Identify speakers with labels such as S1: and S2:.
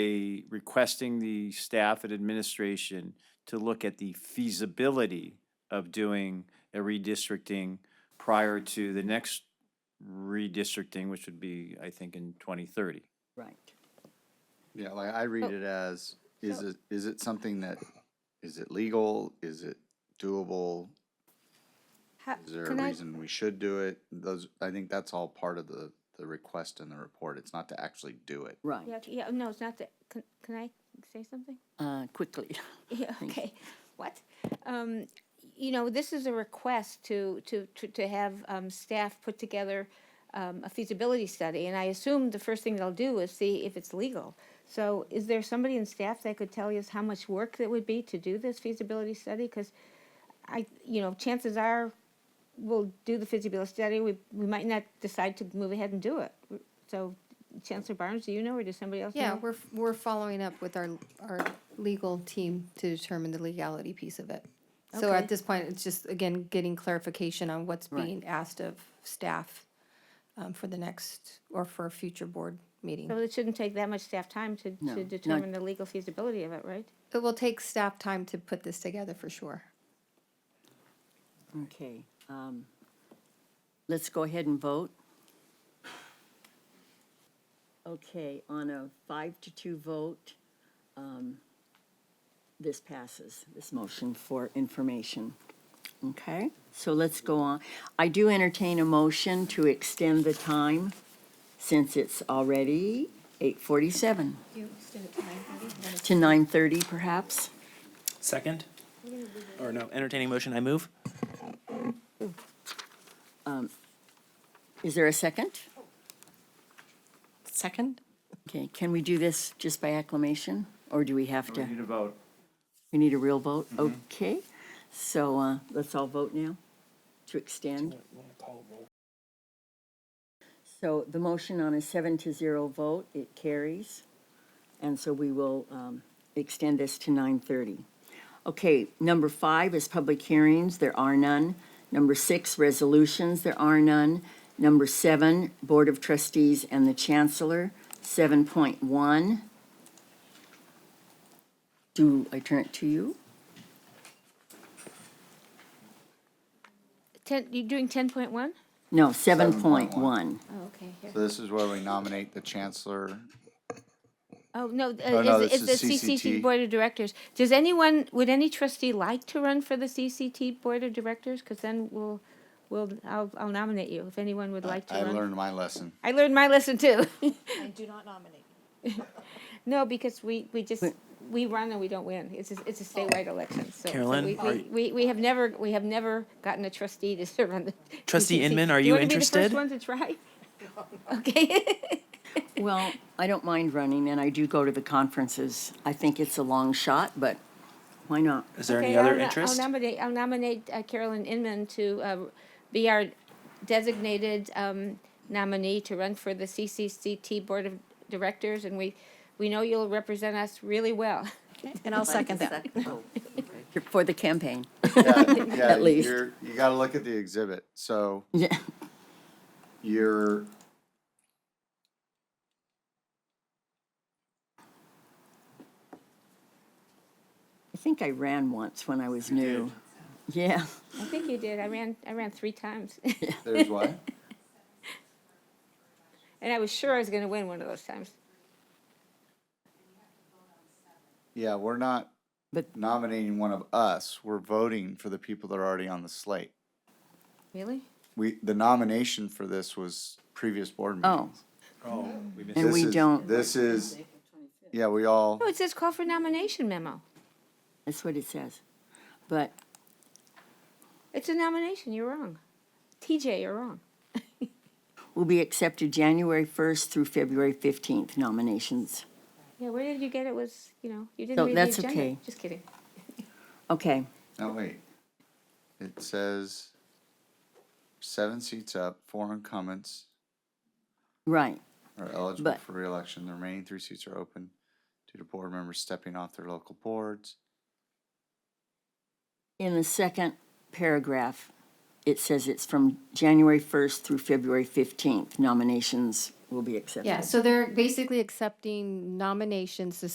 S1: a- requesting the staff and administration to look at the feasibility of doing a redistricting prior to the next redistricting, which would be, I think, in twenty thirty.
S2: Right.
S3: Yeah, like I
S4: Oh.
S3: read it as, is it, is it something that, is it legal? Is it doable?
S4: Ha-
S3: Is there
S4: Uh, can
S3: a
S4: I-
S3: reason we should do it? Those, I think that's all part of the, the request in the report. It's not to actually do it.
S2: Right,
S4: Yeah, c- yeah, no, it's not that, can, can I say something?
S2: uh, quickly.
S4: Yeah, okay, what? Um, you know, this is a request to, to, to, to have, um, staff put together, um, a feasibility study, and I assume the first thing they'll do is see if it's legal. So is there somebody in staff that could tell us how much work it would be to do this feasibility study? Cause I, you know, chances are, we'll do the feasibility study, we, we might not decide to move ahead and do it. So Chancellor Barnes, do you know, or does somebody else know?
S5: Yeah, we're, we're following up with our, our legal team to determine the legality piece of it. So
S4: Okay.
S5: at this point, it's just, again, getting clarification on what's
S2: Right.
S5: being asked of staff um, for the next, or for a future board meeting.
S4: So it shouldn't take that much staff time to,
S2: No,
S4: to
S2: not-
S4: determine the legal feasibility of it, right?
S5: It will take staff time to put this together for sure.
S2: Okay, um, let's go ahead and vote. Okay, on a five to two vote, um, this passes, this motion for information. Okay, so let's go on. I do entertain a motion to extend the time since it's already eight forty-seven to nine thirty perhaps.
S6: Second? Or no, entertaining motion, I move?
S2: Is there a second?
S5: Second?
S2: Okay, can we do this just by acclamation, or do we have
S1: We
S2: to,
S1: need a vote. Mm-hmm.
S2: we need a real vote? Okay, so uh, let's all vote now to extend. So the motion on a seven to zero vote, it carries, and so we will um, extend this to 9:30. Okay, number five is public hearings, there are none. Number six, resolutions, there are none. Number seven, Board of Trustees and the Chancellor, 7.1. Do I turn it to you?
S4: Ten, you're doing ten point one?
S2: No, 7.1.
S3: 7.1.
S4: Oh, okay, here.
S3: So this is where we nominate the chancellor.
S4: Oh, no, uh,
S3: Oh, no,
S4: is,
S3: this
S4: is the
S3: is
S4: CCT
S3: CCT.
S4: Board of Directors. Does anyone, would any trustee like to run for the CCT Board of Directors? Because then we'll, we'll, I'll, I'll nominate you if anyone would like to
S3: I
S4: run.
S3: learned my lesson.
S4: I learned my lesson too. And do not nominate. No, because we, we just, we run and we don't win. It's, a- it's a statewide election, so. so
S6: Carolyn,
S4: we-
S6: are
S4: We,
S6: you-
S4: we, we have never, we have never gotten a trustee to serve on the.
S6: Trustee
S4: TCC.
S6: Inman, are
S4: Do
S6: you
S4: wanna be the first
S6: interested?
S4: one to try? Okay.
S2: Well, I don't mind running, and I do go to the conferences. I think it's a long shot, but why not?
S6: Is there
S4: Okay,
S6: any
S4: I'll
S6: other
S4: no-
S6: interest?
S4: I'll nominate, I'll nominate uh, Carolyn Inman to uh, be our designated um, nominee to run for the CCCT Board of Directors, and we, we know you'll represent us really well.
S7: And I'll second that.
S2: For the campaign.
S3: At
S2: least.
S3: You gotta look at the exhibit. So
S2: Yeah.
S3: you're
S2: I think I ran once when I was new. Yeah,
S4: I think you did, I ran, I ran three times,
S3: there's what?
S4: and I was sure I was gonna win one of those times.
S3: Yeah, we're not
S2: But-
S3: nominating one of us. We're voting for the people that are already on the slate.
S4: Really?
S3: We, the nomination for this was previous board
S2: oh.
S3: meetings.
S2: And
S3: This
S2: we
S3: is-
S2: don't,
S3: This is, yeah, we all,
S4: No, it says call for nomination memo.
S2: that's what it says. But
S4: It's a nomination, you're wrong. TJ, you're wrong.
S2: will be accepted January 1st through February 15th nominations.
S4: Yeah, where did you get it was, you know,
S2: No,
S4: you didn't read
S2: that's
S4: the agenda.
S2: okay.
S4: Just kidding.
S2: Okay,
S3: no, wait. It says seven seats up, four incumbents
S2: right.
S3: are eligible
S2: But-
S3: for reelection. The remaining three seats are open due to board members stepping off their local boards.
S2: In the second paragraph, it says it's from January 1st through February 15th nominations will be accepted.
S5: Yeah, so they're basically accepting nominations to